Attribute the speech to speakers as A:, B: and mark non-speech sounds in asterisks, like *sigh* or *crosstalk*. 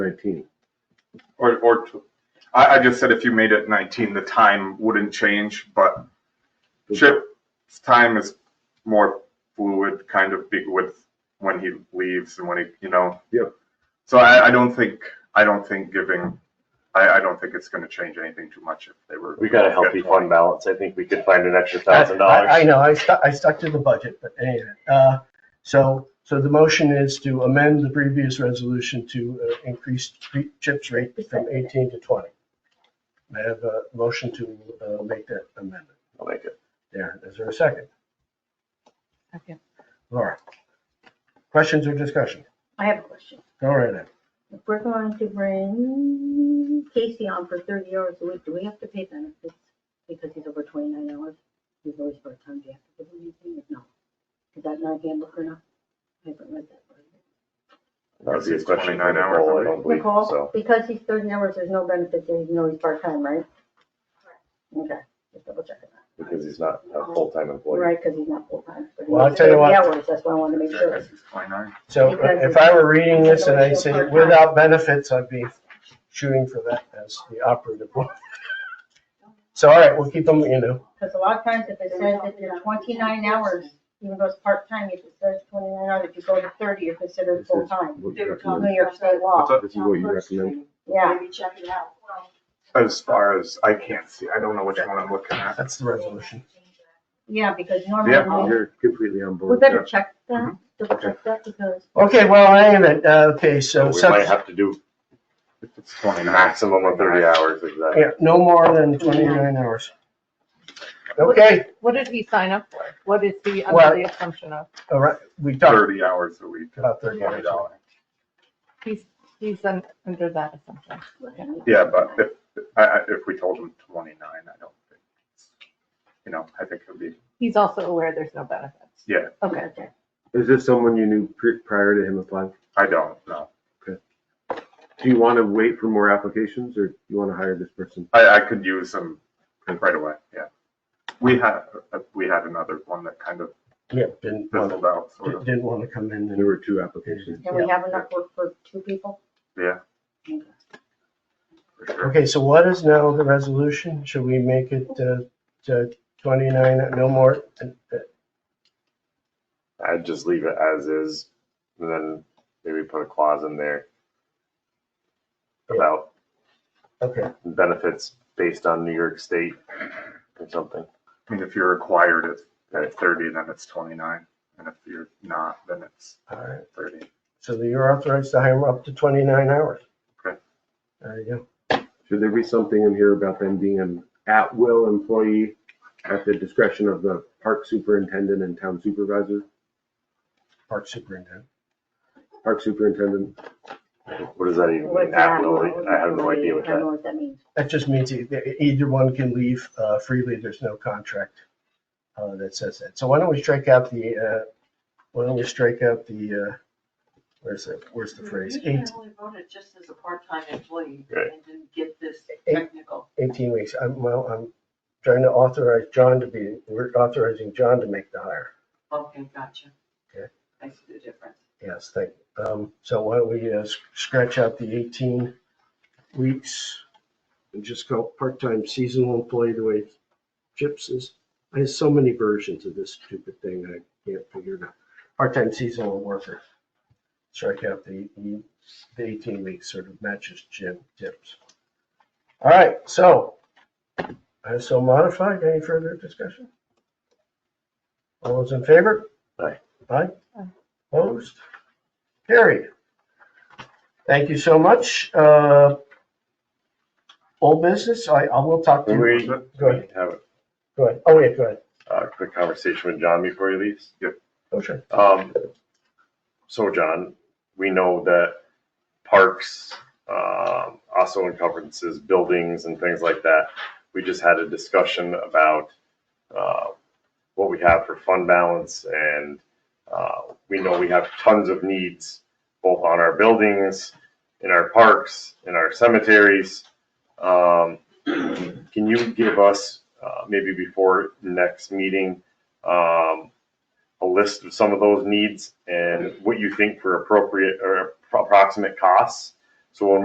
A: nineteen.
B: Or, or, tw- I, I just said if you made it nineteen, the time wouldn't change, but Mm-hmm. Chip's time is more fluid, kind of big with when he leaves and when he, you know.
A: Yep.
B: So I, I don't think, I don't think giving, I, I don't think it's gonna change anything too much if they were.
C: We got a healthy fund balance. I think we could find an extra thousand
D: I
C: dollars.
D: I know, I stuck, I stuck to the budget, but anyway, uh, so, so the motion is to amend the previous resolution to uh, increase tre- CHIPS rate from eighteen to twenty. May I have a motion to, uh, make that amendment?
C: I'll make it.
D: There, is there a second?
E: Second.
D: Laura? Questions or discussion?
F: I have a question.
D: Go right ahead.
F: If we're going to bring Casey on for thirty hours a week, do we have to pay benefits? Because he's over twenty-nine hours, he's always part-time, do you have to give him anything, or no? Is that not gamble or not? I haven't read that. part.
C: That would be a
B: It's
C: question for
B: 29 hours,
C: Nicole, I
B: I
C: don't
B: think.
C: believe,
F: Nicole,
C: so.
F: because he's thirty hours, there's no benefits, and you know he's part-time, right? Okay, just double checking that,
C: Because he's not a full-time employee.
F: right, because he's not full-time. but he
D: Well, I'll
F: works
D: tell you
F: 30
D: what.
F: hours, That's why I wanted to make sure.
B: Twenty-nine.
D: So uh, if I were reading this and I said without benefits, I'd be shooting for that as the operative one. *laughs* So, all right, we'll keep them, you know,
F: Because a lot of times if it says that you're twenty-nine hours, even though it's part-time, if it says twenty-nine hours, if you go to thirty, you're considered full-time.
A: What
E: They were
A: recommend-
F: New York state law,
B: What's up?
A: This is what you recommend.
F: yeah.
E: Maybe check it out.
B: As far as, I can't see, I don't know which one I'm looking at.
D: that's the resolution.
F: Yeah, because
B: Yeah.
F: normally,
A: You're completely on
F: we
A: board.
F: better check
C: Mm-hmm.
F: that, double check that, because
D: Okay, well, I am at, uh, okay,
C: So
D: so,
C: we might
D: subs-
C: have to do
B: If it's twenty-nine,
C: maximum of thirty hours, exactly.
D: yeah, no more than twenty-nine hours. Okay,
E: What did he sign up for? What is he
D: Well-
E: under the assumption of?
D: all right, we talked
B: thirty hours a week,
D: about thirty
B: twenty
D: hours.
B: dollars.
E: He's, he's un- under that assumption.
B: Yeah, but if, I, I, if we told him twenty-nine, I don't think, you know, I think it'd be,
E: He's also aware there's no benefits.
B: Yeah.
E: Okay.
A: Is this someone you knew pri- prior to him applying?
B: I don't know.
A: Do you want to wait for more applications or do you want to hire this person?
B: I, I could use them right away, yeah. We had, uh, we had another one that kind of
D: Yeah, didn't, wanna-
B: fizzled out, sort of.
D: didn't want to come in
A: There
D: and,
A: were two applications.
F: can we have enough work for two people?
B: Yeah.
F: Okay.
B: for sure.
D: okay, so what is now the resolution? Should we make it, uh, to twenty-nine, no more? uh,
C: I'd just leave it as is, and then maybe put a clause in there about
D: Okay,
C: benefits based on New York State or something.
B: I mean, if you're required at,
C: Right.
B: at thirty, then it's twenty-nine, and if you're not, then it's
D: all right.
B: thirty.
D: So that you're authorized to hire up to 29 hours.
B: Okay.
D: There you go.
A: Should there be something in here about them being an at-will employee at the discretion of the park superintendent and town supervisor?
D: Park superintendent.
A: Park superintendent,
C: What does that even
F: What's
C: mean?
F: that?
C: Absolutely, I have no idea what
F: I don't
C: that.
F: know what that means.
D: That just means e- either one can leave uh, freely. There's no contract uh, that says that. So why don't we strike out the, uh, why don't we strike out the, uh, where's the, where's the phrase?
G: You
D: Eight-
G: can only vote it just as a part-time employee
C: Right.
G: and didn't get this
D: Eight-
G: technical.
D: 18 weeks. I'm, well, I'm trying to authorize John to be, we're authorizing John to make the hire.
G: Okay, gotcha.
D: Okay.
G: I see the difference.
D: Yes, thank you. Um, So why don't we uh, scratch out the 18 weeks and just go part-time seasonal employee the way Chips is. I have so many versions of this stupid thing, I can't figure it out. Part-time seasonal worker. Strike out the, the 18 weeks sort of matches Jim Chips. All right, so I so modified. Any further discussion? All those in favor?
C: Aye.
D: Aye?
E: Aye.
D: Opposed? Carried. Thank you so much. Uh, Old business, I, I will talk to
C: Can
D: you.
C: we
D: Go ahead.
C: have
D: Go ahead. Oh, yeah, go ahead.
C: a quick conversation with John before he leaves?
D: Oh, sure.
C: Um, so John, we know that parks, um, also encumbrances, buildings and things like that. We just had a discussion about, uh, what we have for fund balance and, uh, we know we have tons of needs both on our buildings, in our parks, in our cemeteries. Um, *clears throat* can you give us, uh, maybe before next meeting, um, a list of some of those needs and what you think for appropriate or approximate costs So when